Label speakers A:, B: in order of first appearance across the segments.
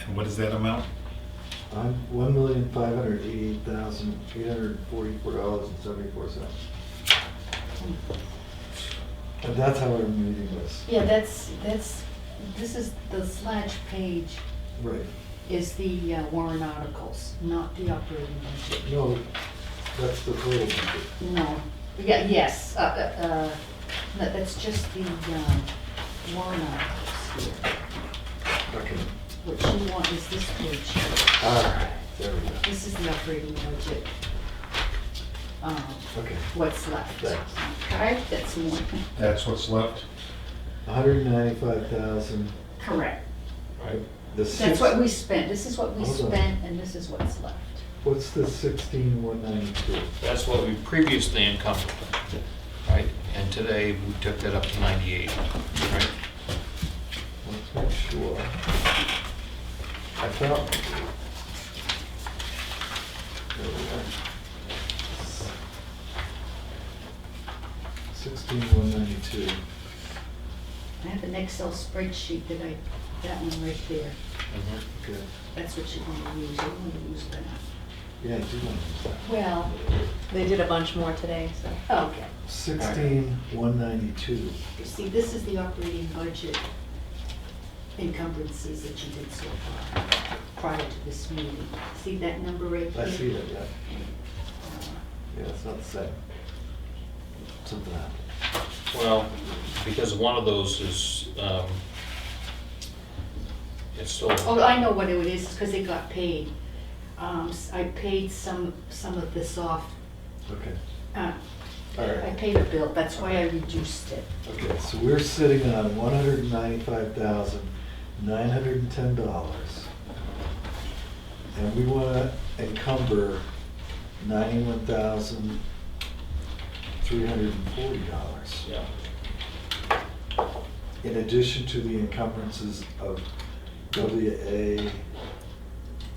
A: And what is that amount?
B: I'm one million five hundred eighty-eight thousand eight hundred forty-four dollars and seventy-four cents. And that's how our meeting was.
C: Yeah, that's, that's, this is, the slash page
B: Right.
C: is the uh, warrant articles, not the operating budget.
B: No, that's the total budget.
C: No, yeah, yes, uh, uh, uh, no, that's just the um, warrant articles here,
B: Okay.
C: which you want is this page.
B: All right, there we go.
C: This is the operating budget. Um,
B: Okay,
C: What's left.
B: Thanks.
C: Okay, that's one.
A: That's what's left?
B: hundred ninety-five thousand,
C: Correct.
A: Right.
B: the six.
C: That's what we spent. This is what we
B: Hold on.
C: spent and this is what's left.
B: What's the sixteen one ninety-two?
D: That's what we previously encumbered, right? And today, we took that up to 98, right?
B: Let's make sure. I thought. There we go. Sixteen one ninety-two.
C: I have an Excel spreadsheet that I, that one right there.
B: Okay.
C: That's what you want to use. You want to use that.
B: Yeah, I do want
C: Well,
E: They did a bunch more today, so.
C: okay.
B: Sixteen one ninety-two.
C: You see, this is the operating budget encumbrances that you did so far prior to this meeting. See that number right there?
B: I see that, yeah.
C: Uh,
B: Yeah, it's not the same. Something happened.
D: Well, because one of those is, um, it's still,
C: Oh, I know what it is, it's because it got paid. Um, s- I paid some, some of this off.
B: Okay.
C: Uh,
B: All right.
C: I paid a bill, that's why I reduced it.
B: Okay, so we're sitting on one hundred and ninety-five thousand, nine hundred and ten dollars. And we wanna encumber ninety-one thousand, three hundred and forty dollars.
D: yeah,
B: In addition to the encumbrances of WA,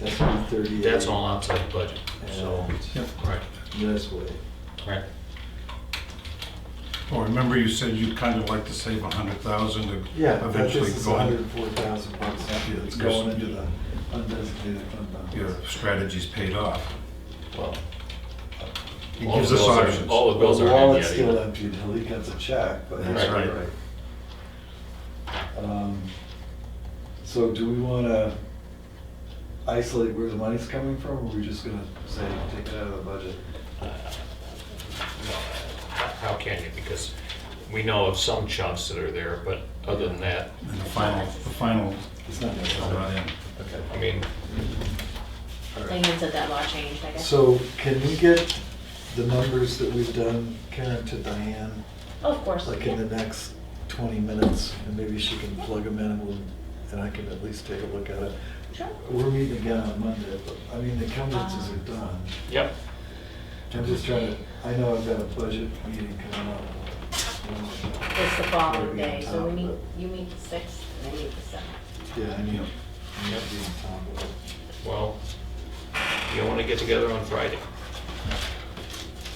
B: SB thirty-eight.
D: that's all outside the budget, so,
B: And
A: Yep.
D: right,
B: municipal aid.
D: right.
A: Well, Oh, remember you said you'd kind of like to save a hundred thousand to
B: Yeah, that
A: eventually
B: just is
A: go on
B: hundred and four thousand bucks
A: Yeah,
B: that's
A: it's
B: going
A: just-
B: into the undesignated fund balance.
A: Your strategy's paid off.
B: Well,
A: It
D: All
A: gives
D: the
A: us
D: bills are-
A: options.
D: All the
B: Well,
D: bills
B: the
D: are in
B: wallet's
D: yet
B: still
D: either.
B: empty until he gets a check, but
A: That's
B: that's all
A: right.
B: right. Um, So do we want to isolate where the money's coming from, or are we just gonna say, take it out of the budget?
D: No, How can you, because we know of some chunks that are there, but other than that,
A: And the final, the final
B: It's not
A: is
B: gonna
A: not in.
B: Okay.
D: I mean,
B: all right.
E: Megan said that law changed, I guess.
B: So can we get the numbers that we've done, Karen, to Diane,
E: Of course.
B: like in
E: yeah.
B: the next 20 minutes? And maybe she can plug them in, and we'll- and I can at least take a look at it.
E: Sure.
B: We're meeting again on Monday, but, I mean, the encumbrances are done.
D: yep,
B: I'm just trying to, I know I've got a budget meeting coming up.
E: It's the following
B: Maybe on
E: day, so we
B: top,
E: meet,
B: but-
E: you meet the sixth and I meet the seventh.
B: Yeah, I need, I need to be on top of it.
D: well, you want to get together on Friday.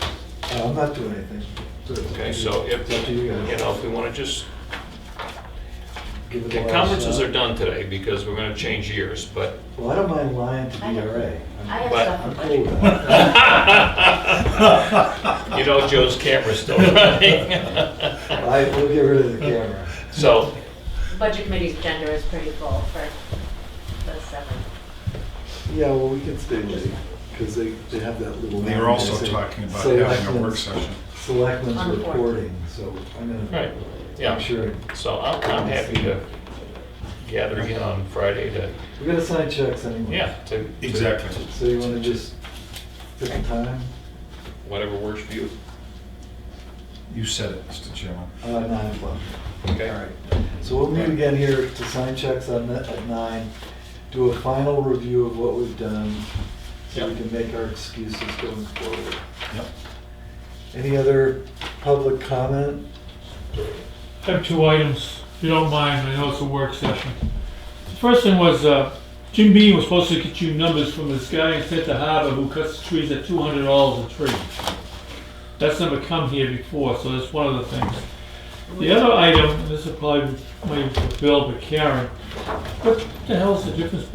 B: Uh, I'm not doing anything. So it's up
D: Okay,
B: to
D: so
B: you.
D: if,
B: It's up to you
D: you
B: guys.
D: know, if we want to just,
B: Give it a
D: the
B: last
D: conferences
B: shot.
D: are done today because we're going to change years, but.
B: Well, I don't mind lying to
C: I have-
B: DRA. I'm-
C: I have
D: But-
C: stuff.
B: I'm
C: in
B: cool
C: budget.
B: with that.
D: You know Joe's camera's still running.
B: I, we'll get rid of the camera.
D: So,
E: Budget committee's agenda is pretty full for the seventh.
B: Yeah, well, we can stay late, because they, they have that little.
A: They
B: line
A: were also
B: that say,
A: talking about having a work
B: "Selectmen's-
A: session.
B: Selectmen's
E: On the fourth.
B: reporting, so I'm in.
D: right, yeah.
B: I'm sure.
D: So I'm, I'm happy to gather again on Friday to,
B: We're gonna sign checks anyway.
D: yeah, to. to-
A: Exactly.
B: So you wanna just pick a time?
D: Whatever works for you,
A: You said it, Mr. Chairman.
B: Uh, nine o'clock.
D: okay?
B: All right. So we'll meet again here to sign checks on, the- at nine, do a final review of what we've done, so we
D: Yep.
B: can make our excuses going forward.
A: Yep.
B: Any other public comment?
F: I have two items, if you don't mind, I know it's a work session. The First thing was, uh, Jim Beam was supposed to get you numbers from this guy in Santa Harbor who cuts trees at two hundred dollars a tree. That's never come here before, so that's one of the things. The other item, and this is probably, maybe for Bill, but Karen, what the hell's the difference